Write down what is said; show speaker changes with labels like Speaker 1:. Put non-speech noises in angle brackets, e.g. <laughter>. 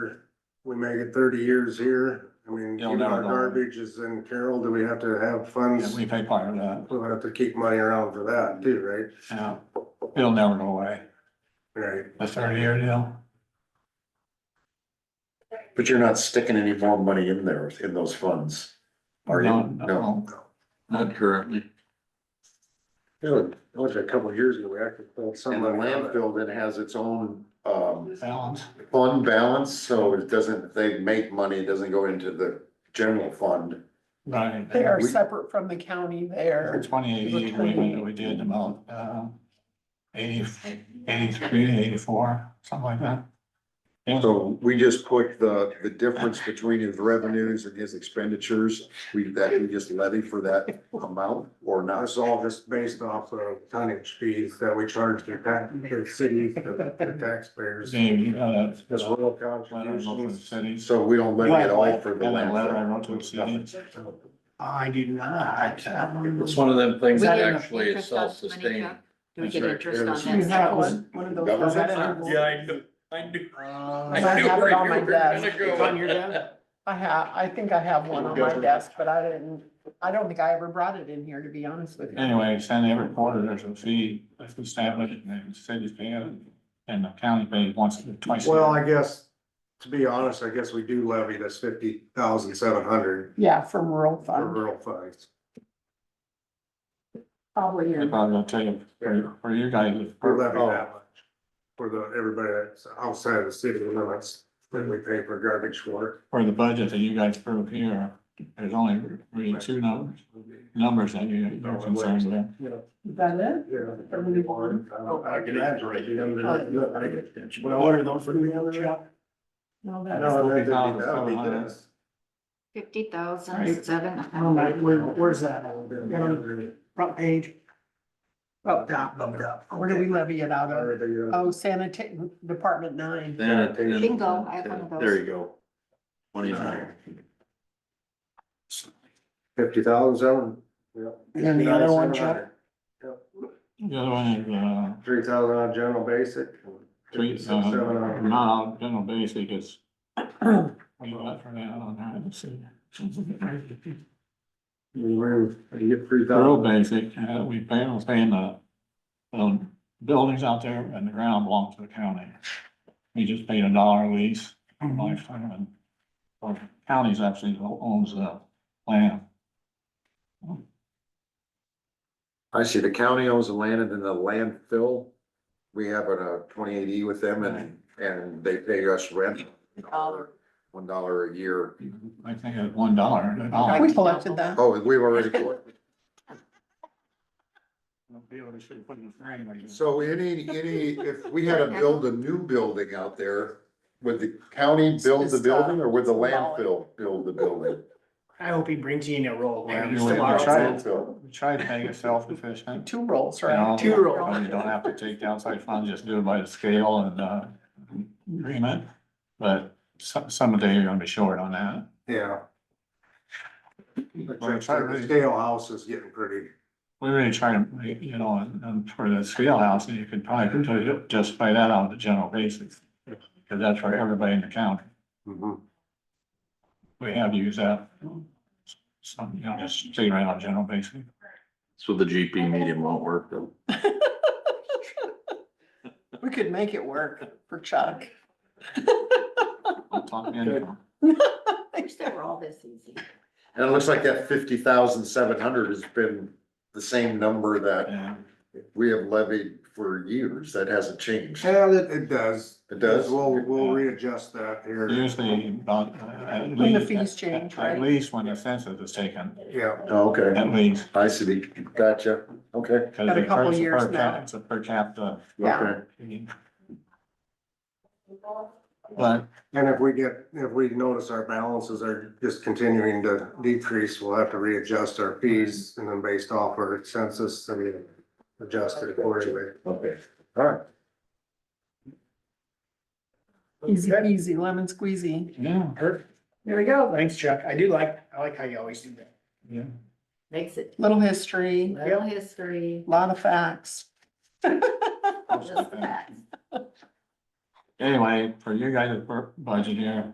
Speaker 1: make it thirty years here. I mean,
Speaker 2: You'll
Speaker 1: even our
Speaker 2: never know.
Speaker 1: garbage is in Carroll. Do we have to have
Speaker 2: Yeah,
Speaker 1: funds?
Speaker 2: we pay part of that,
Speaker 1: We'll have to keep money around for that too, right?
Speaker 2: yeah. It'll never go away,
Speaker 1: Right.
Speaker 2: the thirty year deal.
Speaker 3: But you're not sticking any more money in there, in those funds. Are you?
Speaker 2: No,
Speaker 3: No.
Speaker 2: No.
Speaker 4: Not currently.
Speaker 1: It was- it was a couple of years ago, we actually pulled some
Speaker 3: And the
Speaker 1: money out of it.
Speaker 3: landfill then has its own, um,
Speaker 2: Balance,
Speaker 3: fund balance, so it doesn't, if they make money, it doesn't go into the general fund.
Speaker 2: right.
Speaker 5: They are
Speaker 3: We-
Speaker 5: separate from the county there.
Speaker 2: Twenty eighty agreement that we did about, uh, eighty, eighty-three, eighty-four, something like that. It was-
Speaker 3: So we just put the, the difference between his revenues and his expenditures, we, that we just levy for that amount or not?
Speaker 1: That's all just based off of tonnage fees that we charge the tax, the cities, the the taxpayers.
Speaker 2: Dave, uh,
Speaker 1: As well
Speaker 2: letter I wrote to the
Speaker 1: contributions.
Speaker 2: city.
Speaker 3: So we don't levy at all for the
Speaker 2: Yeah, that letter I wrote to the city.
Speaker 3: landfill.
Speaker 2: I do not.
Speaker 4: It's one of them things
Speaker 6: We
Speaker 4: that
Speaker 6: get
Speaker 4: actually is
Speaker 6: interest on money,
Speaker 4: self-sustaining.
Speaker 6: Chuck? Do we
Speaker 4: That's
Speaker 6: get
Speaker 4: right.
Speaker 6: interest on
Speaker 5: You
Speaker 6: that?
Speaker 5: have one, one of those.
Speaker 3: Government?
Speaker 5: letters?
Speaker 4: do, I do. I
Speaker 2: Uh,
Speaker 5: I
Speaker 4: knew
Speaker 5: have
Speaker 4: where
Speaker 5: it on
Speaker 4: you
Speaker 5: my
Speaker 4: were gonna
Speaker 5: desk.
Speaker 4: go.
Speaker 5: It's on your desk? I have, I think I have one on my
Speaker 3: Government.
Speaker 5: desk, but I didn't, I don't think I ever brought it in here, to be honest with you.
Speaker 2: Anyway, send every quarter, there's a fee, if we establish it, and the city's paying it, and the county pays once, twice. a year.
Speaker 1: Well, I guess, to be honest, I guess we do levy this fifty thousand seven hundred
Speaker 5: Yeah, from rural
Speaker 1: for
Speaker 5: fund,
Speaker 1: rural funds.
Speaker 5: probably.
Speaker 2: They
Speaker 5: in-
Speaker 2: probably gonna tell you, for, for you guys. it's-
Speaker 1: We levy that much. For the, everybody that's outside of the city limits, that we pay for garbage for.
Speaker 2: For the budget that you guys approve here, there's only really two numbers, numbers that you, you're concerned with.
Speaker 5: Is that it?
Speaker 1: Yeah.
Speaker 5: Everybody born?
Speaker 1: I can imagine, right? You know, they're-
Speaker 2: Well,
Speaker 1: what are those for the other?
Speaker 5: No, that's,
Speaker 1: No, that'd be, that'd be this.
Speaker 6: Fifty thousand seven.
Speaker 5: all right, where, where's that? Front page. Oh, down, oh, down. Where do we levy it out of?
Speaker 1: Alright,
Speaker 5: Oh, sanitation, Department nine.
Speaker 3: <clears throat>
Speaker 4: Sanitation.
Speaker 6: Bingo, I have one of
Speaker 4: There
Speaker 6: those.
Speaker 4: you go. Twenty-nine.
Speaker 1: Fifty thousand seven. Yep.
Speaker 5: And then the other one, Chuck?
Speaker 2: The other one is, uh,
Speaker 1: Three thousand on general basic.
Speaker 2: three,
Speaker 1: Six,
Speaker 2: uh,
Speaker 1: seven on-
Speaker 2: not all general basic is.
Speaker 3: Oh.
Speaker 2: What do you got for that on there? Let's see.
Speaker 1: You get three
Speaker 2: Real
Speaker 1: thousand.
Speaker 2: basic, uh, we pay, we're paying the, um, buildings out there and the ground belongs to the county. We just paid a dollar lease, for lifetime, and, or county's actually owns the land.
Speaker 3: I see the county owns the land and then the landfill, we have a twenty-eight E with them and, and they pay us rent.
Speaker 6: Dollar.
Speaker 3: One dollar a year.
Speaker 2: I think it's one dollar, a dollar.
Speaker 5: We collected that.
Speaker 3: Oh, we've already, collected. so any, any, if we had to build a new building out there, would the county build the building or would the landfill build the building?
Speaker 7: I hope he brings you in a roll.
Speaker 2: Yeah,
Speaker 7: man.
Speaker 2: you
Speaker 7: Still
Speaker 2: would.
Speaker 7: are-
Speaker 3: Landfill.
Speaker 2: We try to make it self-efficient.
Speaker 5: Two rolls,
Speaker 2: you
Speaker 5: right?
Speaker 2: know,
Speaker 7: Two roll.
Speaker 2: You don't have to take the outside funds, just do it by the scale and, uh, agreement, but some, someday you're gonna be short on that.
Speaker 1: Yeah.
Speaker 2: Well, I try to
Speaker 1: The
Speaker 2: really-
Speaker 1: Scale house is getting pretty,
Speaker 2: We really try to, make, you know, and- and for the scale house, and you could probably ju- just pay that out of the general basics. Cause that's for everybody in the county.
Speaker 1: Mhm.
Speaker 2: We have used that. Some, you know, just stay right on general basic.
Speaker 4: So the GP medium won't work though.
Speaker 5: We could make it work for Chuck. <laughs>
Speaker 2: We'll talk in-
Speaker 6: I wish they were all this easy.
Speaker 3: And it looks like that fifty thousand seven hundred has been the same number that
Speaker 2: Yeah.
Speaker 3: we have levied for years. That hasn't changed.
Speaker 1: yeah, it, it does.
Speaker 3: It does?
Speaker 1: We'll, we'll readjust that here.
Speaker 2: Usually about, uh, at least.
Speaker 5: When the fees change,
Speaker 2: At
Speaker 5: right?
Speaker 2: least when the census is taken,
Speaker 1: Yeah,
Speaker 3: Oh, Okay,
Speaker 2: at least.
Speaker 3: I see. Gotcha. Okay.
Speaker 2: because
Speaker 5: Got a
Speaker 2: it's
Speaker 5: couple
Speaker 2: per-
Speaker 5: years
Speaker 2: per cap-
Speaker 5: now.
Speaker 2: It's a per capita.
Speaker 5: Yeah.
Speaker 3: Okay.
Speaker 2: But
Speaker 1: and if we get, if we notice our balances are just continuing to decrease, we'll have to readjust our fees and then based off our census, I mean, adjust it accordingly.
Speaker 3: Okay, all right.
Speaker 5: Easy easy, lemon squeezy.
Speaker 2: yeah,
Speaker 7: Perfect.
Speaker 5: There we go.
Speaker 7: Thanks, Chuck. I do like, I like how you always do that.
Speaker 2: yeah.
Speaker 6: Makes it
Speaker 5: Little history,
Speaker 6: <laughs> little history,
Speaker 5: lot of facts.
Speaker 6: just the facts.
Speaker 2: Anyway, for you guys' bur- budget here,